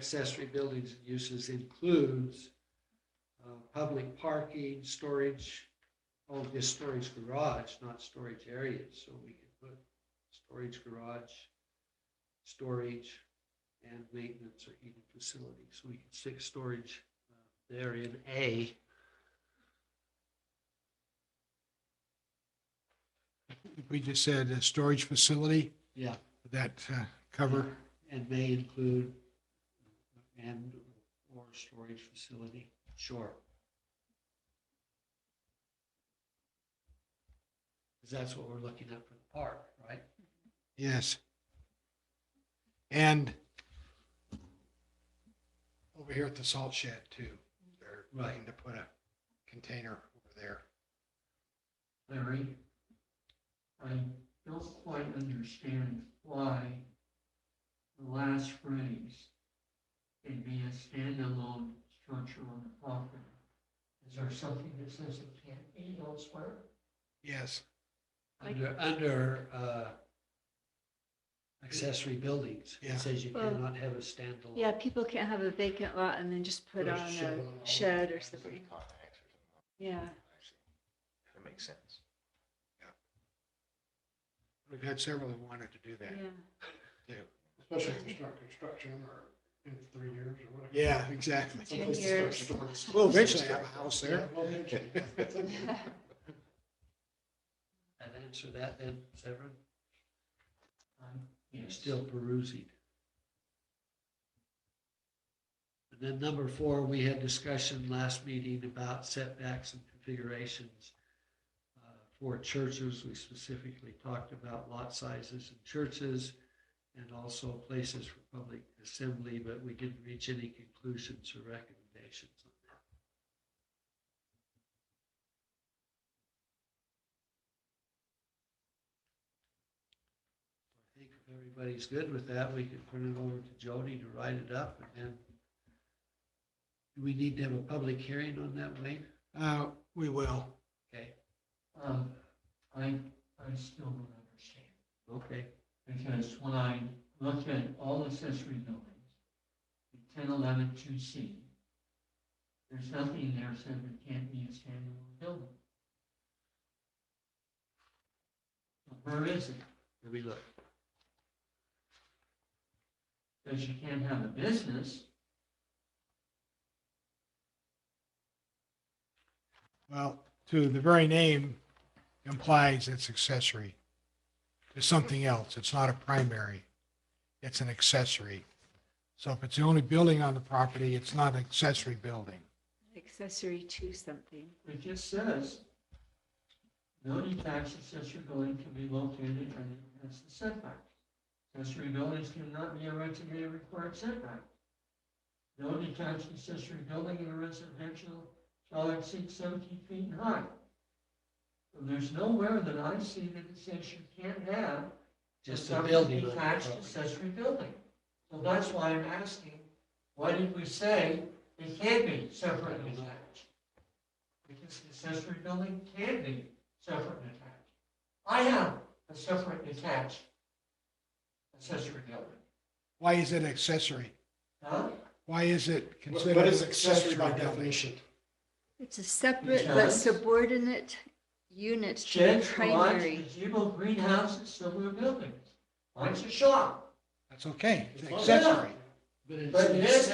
accessory buildings and uses includes uh, public parking, storage, oh, just storage garage, not storage areas, so we can put storage garage, storage, and maintenance or heating facility, so we can stick storage uh, there in A. If We just said a storage facility, Yeah. would that uh, cover, And may include and or storage facility, sure. Because that's what we're looking at for the park, right? yes. And over here at the salt shed too, they're looking Right. to put a container over there. Larry, I don't quite understand why the last phrase can be a standalone structure on the property. Is there something that says it can't be elsewhere? Yes, Like- Under, under uh, accessory buildings, Yeah. it says you Well- cannot have a standalone. Yeah, people can't have a vacant lot and then just put Put a on shed a on it. shed or So you something. call it hacks or something. Yeah, That makes sense. we've had several who wanted to do yeah. that. Especially if they start construction or in three years or whatever. Yeah, exactly. Ten years. We'll eventually have a house there. And answer that then, Severin, I'm- you're yes. still perusing. And then number four, we had discussion last meeting about setbacks and configurations. uh, For churches, we specifically talked about lot sizes in churches and also places for public assembly, but we didn't reach any conclusions or recommendations on that. I think if everybody's good with that, we can turn it over to Jody to write it up and then. Do we need to have a public hearing on that, Wayne? Uh, We will. Okay, Um, I, I still don't understand. okay, Because when I looked at all accessory buildings, ten, eleven, two C, there's nothing there said it can't be a standalone building. Where is it? let me look. Because you can't have a business. Well, to the very name implies it's accessory to something else. It's not a primary. It's an accessory. So if it's the only building on the property, it's not an accessory building. Accessory to something. It just says, no detached accessory building can be located and that's the setback. Accessory buildings cannot be erected in a required setback. No detached accessory building in a residential shall exceed seventy feet in height. And There's nowhere that I see that it says you can't have Just a separate building. on the Detached property. accessory building. So that's why I'm asking, why did we say it can't be separate and attached? Because the accessory building can be separate and attached. I have a separate detached accessory building. Why is it accessory? Huh? Why is it considered? What is accessory by building? definition? It's a separate but Because- subordinate unit to the Sheds, garages, primary. gazebo, greenhouses, similar buildings. Mine's a shop. That's okay. It's Yeah. accessory. But it's But this is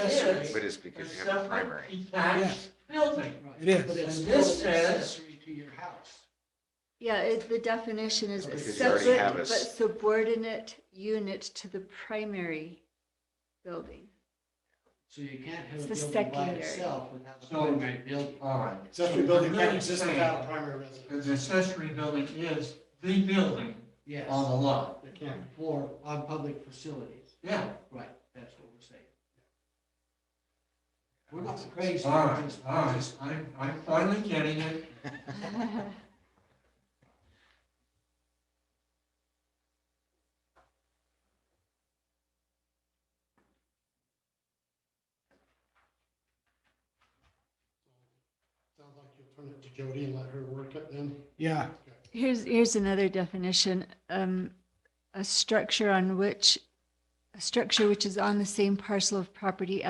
But it's a because you have a separate primary. detached building. It is. But it's And this still says- accessory to your house. Yeah, it, the definition is a Because you already have separate a but s- subordinate unit to the primary building. So you can't have a It's the building by secondary. itself without a So- primary building. All right. Accessory building Really can't exist saying- without a primary Because the residence. accessory building is the building Yes, on the lot. it can't. or on public facilities, Yeah. right, that's what we're saying. We're not crazy. All right, all right. I'm, I'm finally getting it. Sounds like you'll turn it to Jody and let her work it then. Yeah. Okay. Here's, here's another definition, um, a structure on which a structure which is on the same parcel of property